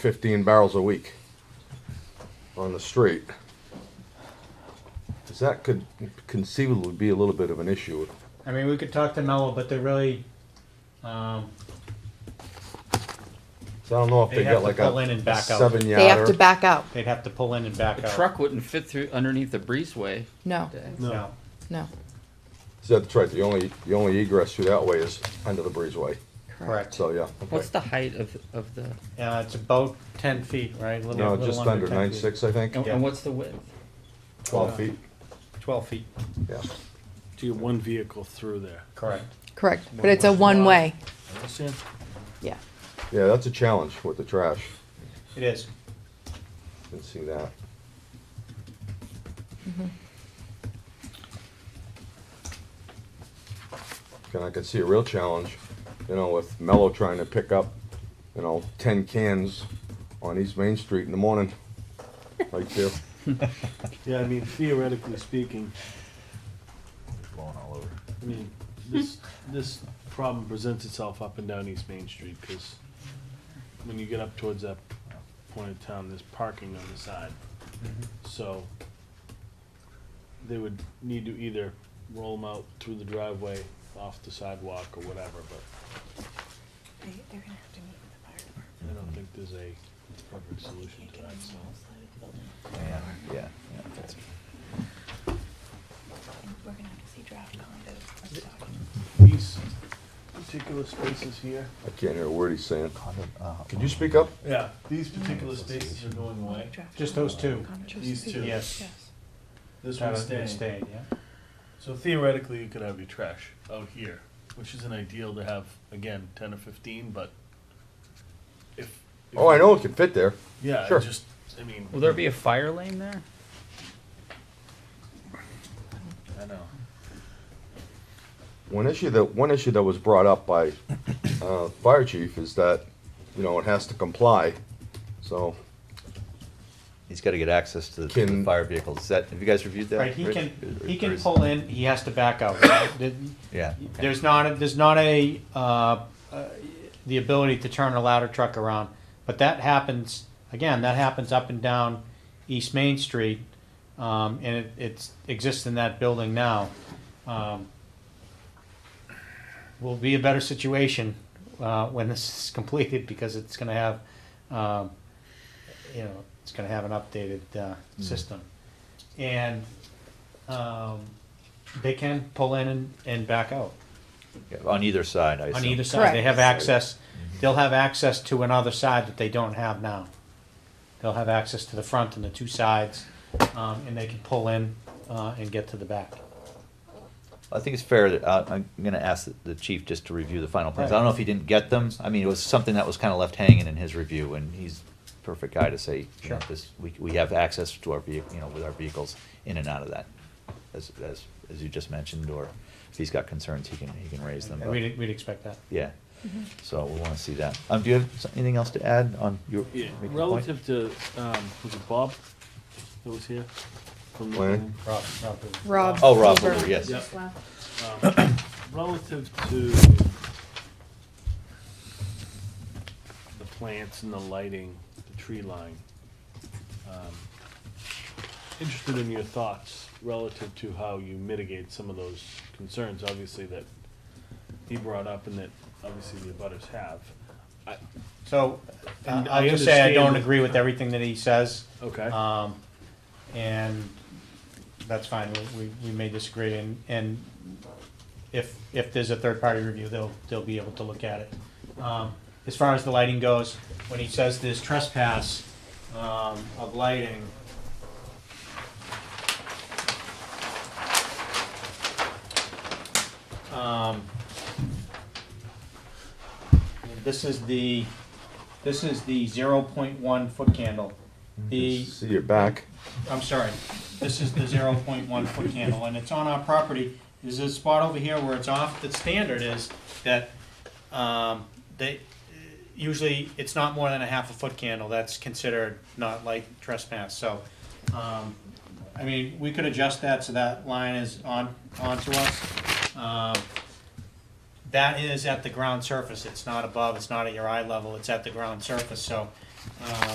15 barrels a week on the street. 'Cause that could conceivably be a little bit of an issue. I mean, we could talk to Mello, but they're really, um, So I don't know if they, They have got to like pull in a and back out. seven They have to yarder. back out. they'd have to pull in and back A out. truck wouldn't fit through underneath the breezeway. No, No. no, So that's right. The only the only egress through that way is under the breezeway. Correct. So yeah. Okay. What's the height of, of the, Uh, it's about ten feet, right? A little- no, little just under 10 nine feet. uh, six, I think. and, Yeah. and what's the width? 12 feet. Twelve feet, Yeah. to get one vehicle through there. correct. correct. But it's a one way. Understand? Yeah. Yeah, that's a challenge with the trash. It is. Didn't see that. And I can see a real challenge, you know, with Mello trying to pick up, you know, ten cans on East Main Street in the morning. Right there. Yeah, I mean theoretically speaking, blowing all over. I mean, this, this problem presents itself up and down East Main Street, because when you get up towards that point of town, there's parking on the side. Mm-hmm. So they would need to either roll them out through the driveway, off the sidewalk, or whatever, but They, they're gonna have to meet with the fire department. I Mm-hmm. don't think there's a perfect solution to that, so. Yeah, yeah, yeah. And We're gonna have to see draft condos. and stuff. These particular spaces here. I can't hear a word he's saying. Condo- uh, Could you speak up? Yeah. These particular spaces are going away. Draft Just those two. condos. These two. Yes. This That would one's be staying. stayed, yeah. So theoretically, you could have your trash out here, which isn't ideal to have, again, ten or fifteen, but if. if- Oh, I know it can fit there. Yeah, Sure. I just, I mean, Will there be a fire lane there? I know. One issue that, one issue that was brought up by, uh, fire chief is that, you know, it has to comply. So, He's gotta get access to the- to the Can- fire vehicles. Is that, have you guys reviewed that? Right, he Rich? can, Or- he or can is- pull in, he has to back out. right? The- Yeah. okay. There's not, a- there's not a, uh, uh, the ability to turn a ladder truck around. But that happens, again, that happens up and down East Main Street. Um, and it, it's, exists in that building now. Um, Will be a better situation, uh, when this is completed because it's gonna have, um, you know, it's gonna have an updated, uh, system. And, um, they can pull in and, and back out Yeah, On either side, I on assume. either side. Correct. They have access, Mm-hmm. they'll have access to another side that they don't have now. They'll have access to the front and the two sides, um, and they can pull in, uh, and get to the back. I think it's fair that, uh, I'm gonna ask the- the chief just to review the final plans. I Right. don't know if he didn't get them. I mean, it was something that was kinda left hanging in his review, and he's perfect guy to say, you know, Sure. this, we, we have access to our vehicle, you know, with our vehicles in and out of that. As, as, as you just mentioned, or if he's got concerns, he can, he can raise them. but- We'd, we'd expect that. Yeah, so we wanna see that. Um, do you have s- anything else to add on your? Yeah, making point? relative to, um, was it Bob that was here? from the- Planning? Rob, Rob, please. Rob. Oh, Rob, Wilbur. Wilbur, yes. Yep. Um, Relative to the plants and the lighting, the tree line, um, interested in your thoughts relative to how you mitigate some of those concerns, obviously, that he brought up and that obviously the abutters have. I- So, uh, And I I'll just say I don't understand- agree with everything that he says. Okay. Um, and that's fine, we, we, we may disagree, and, and if, if there's a third-party review, they'll, they'll be able to look at it. Um, as far as the lighting goes, when he says there's trespass, um, of lighting, um, this is the, this is the zero point one foot candle. The, see your back. I'm sorry, this is the zero point one foot candle, and it's on our property. There's a spot over here where it's off, the standard is that, um, they, usually, it's not more than a half a foot candle, that's considered not light trespass, so, um, I mean, we could adjust that so that line is on, onto us. Um, That is at the ground surface, it's not above, it's not at your eye level, it's at the ground surface, so, uh,